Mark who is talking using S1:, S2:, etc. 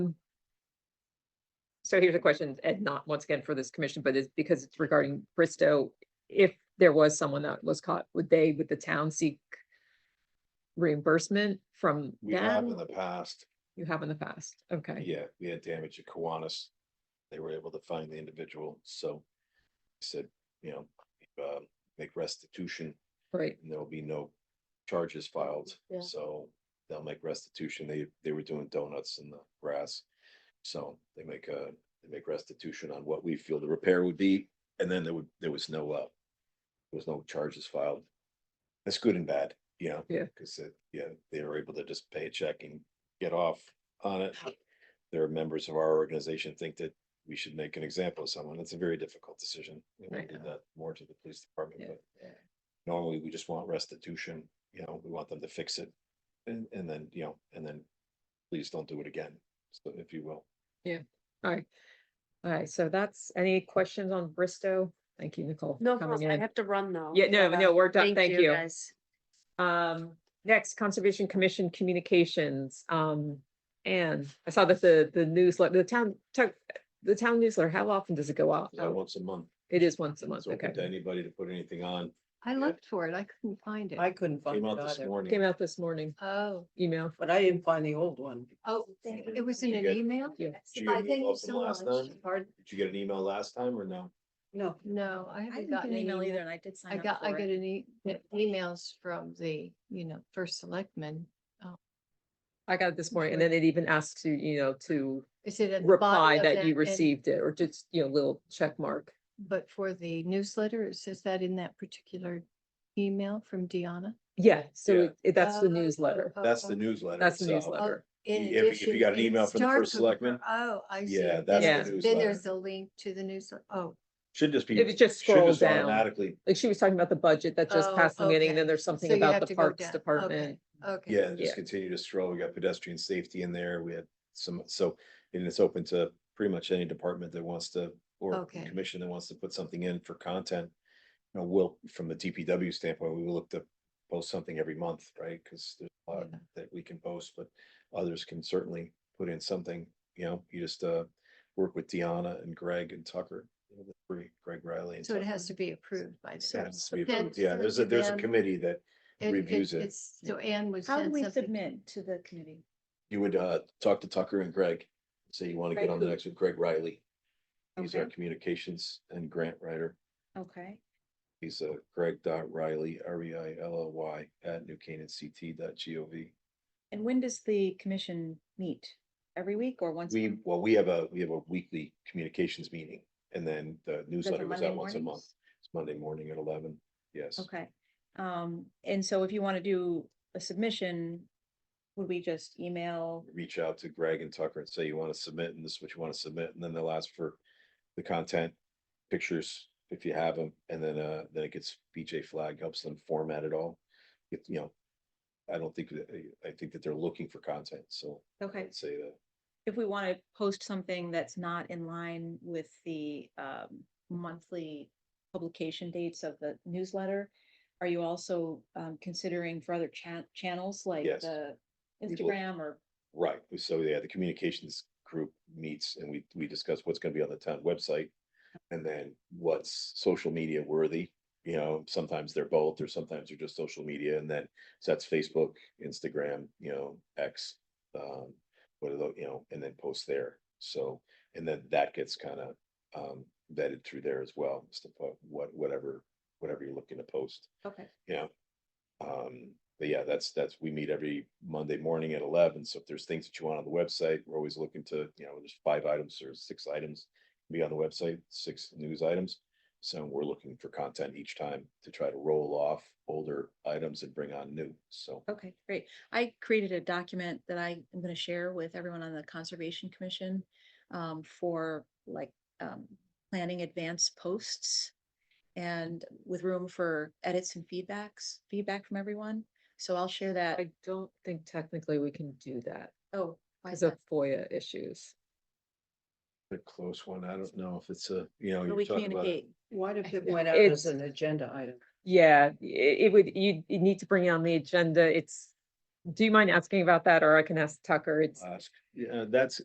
S1: so here's a question, and not once again for this commission, but it's because it's regarding Bristow. If there was someone that was caught, would they, would the town seek reimbursement from
S2: We have in
S1: them?
S2: the past,
S1: You have in the past, okay.
S2: yeah, we had damage at Kiwanis. They were able to find the individual, so he said, you know, um, make restitution
S1: Right,
S2: and there will be no charges filed.
S1: Yeah.
S2: So they'll make restitution. They, they were doing donuts in the grass. So they make a, they make restitution on what we feel the repair would be. And then there would, there was no, uh, there was no charges filed. That's good and bad, you know?
S1: Yeah.
S2: Cause it, yeah, they were able to just pay a check and get off on it. There are members of our organization think that we should make an example of someone. It's a very difficult decision. You know, We
S1: Right.
S2: did that more to the police department,
S1: Yeah.
S2: but normally we just want restitution, you know, we want them to fix it. And, and then, you know, and then please don't do it again, so if you will.
S1: all right. All right, so that's, any questions on Bristow? Thank you, Nicole. for
S3: No,
S1: coming
S3: problem. I
S1: in.
S3: have to run though.
S1: Yeah, no,
S3: but, uh,
S1: no, we're done, thank you.
S3: guys.
S1: Um, next, Conservation Commission Communications, um, and I saw that the, the newsletter, the town, took- the town newsletter, how often does it go out?
S2: Uh, Once a month,
S1: It is once a month,
S2: it's open to
S1: Oh. okay.
S2: anybody to put anything on,
S4: I looked for it. I couldn't find it.
S5: I couldn't find
S2: came
S5: it
S2: out this
S5: either,
S1: Came
S2: morning.
S1: out this morning,
S4: Oh,
S1: email.
S5: but I didn't find the old one.
S4: oh, it was in
S2: You
S4: an
S2: get-
S4: email?
S1: Yeah.
S2: Did you get
S4: I
S2: an
S4: thank
S2: email from
S4: you so
S2: last
S4: much.
S2: time?
S5: Pardon?
S2: Did you get an email last time or no?
S5: No,
S4: No, I
S6: I
S4: haven't
S6: didn't get
S4: gotten
S6: an
S4: an
S6: email either
S4: email.
S6: and I did sign
S4: I
S6: up for it.
S4: got, I get an e- emails from the, you know, first selectman.
S1: I got it this morning, and then it even asks you, you know, to
S4: Is it at the bottom
S1: reply
S4: of
S1: that you
S4: and-
S1: received it, or just, you know, little check mark.
S4: But for the newsletter, it says that in that particular email from Deanna.
S1: Yeah,
S2: Yeah.
S1: so it- it, that's the
S4: Oh,
S1: newsletter,
S4: oh,
S2: That's
S4: oh.
S2: the newsletter.
S1: Uh, um, that's the
S2: itself.
S1: newsletter.
S4: In
S2: If- if you
S4: addition,
S2: got an
S4: it
S2: email from the first
S4: starts with-
S2: selectman,
S4: Oh, I see.
S2: yeah, that's
S1: the
S4: Yes. Then
S2: newsletter.
S4: there's a link to the newsletter. Oh,
S2: Should just be.
S1: If you just
S2: should
S1: scroll down.
S2: Automatically,
S1: Like she was talking about the budget that just
S4: Oh,
S1: passed the meeting, and then
S4: okay.
S1: there's
S4: so
S1: something
S4: you
S1: about
S4: have
S1: the
S4: to go
S1: Parks
S4: down.
S1: Department.
S4: Okay.
S2: yeah, and
S1: Yeah.
S2: just continue to scroll. We got pedestrian safety in there. We had some, so, and it's open to pretty much any department that wants to. Or
S4: Okay.
S2: commission that wants to put something in for content. You know, we'll, from the DPW standpoint, we will look to post something every month, right? Cause there's a lot
S4: Yeah.
S2: that we can post, but others can certainly put in something, you know, you just, uh. Work with Deanna and Greg and Tucker, you know, the three, Greg Riley. and
S4: So it
S2: Tucker.
S4: has to be approved by
S2: So it
S4: them.
S2: has to be
S4: Then
S2: approved. Yeah, there's a, there's a
S4: then-
S2: committee that
S4: It-
S2: reviews it.
S4: it's- So Anne was.
S6: How do we submit to the committee?
S2: you would uh talk to Tucker and Greg, say you want to get
S6: Greg
S2: on the
S6: who?
S2: next with Greg Riley. He's our
S6: Okay.
S2: communications and grant writer.
S6: Okay,
S2: He's uh Greg dot Riley, R E I L L Y at New Canaan CT dot G O V.
S6: and when does the commission meet? Every week or once? a
S2: We,
S6: month?
S2: well, we have a, we have a weekly communications meeting and then the
S6: Is that
S2: newsletter goes
S6: the Monday
S2: out once a month.
S6: mornings?
S2: It's Monday morning at eleven. Yes.
S6: Okay, um, and so if you want to do a submission, would we just email?
S2: Reach out to Greg and Tucker and say you want to submit and this is what you want to submit. And then they'll ask for the content, pictures, if you have them. And then, uh, then it gets BJ Flag helps them format it all. If, you know, I don't think, that I think that they're looking for content. So
S6: Okay.
S2: I'd say that
S6: If we want to post something that's not in line with the um monthly publication dates of the newsletter, are you also um considering for other chan- channels like
S2: Yes.
S6: the
S2: will.
S6: Instagram or
S2: Right, so yeah, the communications group meets and we, we discuss what's gonna be on the town website. And then what's social media worthy, you know, sometimes they're both, or sometimes they're just social media, and then, so that's Facebook, Instagram, you know, X. Um, what are those, you know, and then post there, so, and then that gets kind of, um, vetted through there as well, as to put what, whatever, whatever you're looking to post
S6: Okay.
S2: you know. Um, but yeah, that's, that's, we meet every Monday morning at eleven, so if there's things that you want on the website, we're always looking to, you know, there's five items or six items. Be on the website, six news items, so we're looking for content each time to try to roll off older items and bring on new, so.
S6: Okay, great. I created a document that I am gonna share with everyone on the Conservation Commission um, for like um, planning advanced posts and with room for edits and feedbacks, feedback from everyone. So I'll share that.
S1: I don't think technically we can do that
S6: Oh, why is
S1: because of
S6: that?
S1: FOIA issues.
S2: A close one, I don't know if it's a, you know,
S6: But
S2: you're
S6: we
S2: talking about.
S6: communicate.
S5: What if it
S1: Yeah.
S5: went out as
S1: It's-
S5: an agenda item?
S1: Yeah, i- it would, you, you need to bring it on the agenda. It's, do you mind asking about that or I can ask Tucker? It's,
S2: Ask, yeah, that's,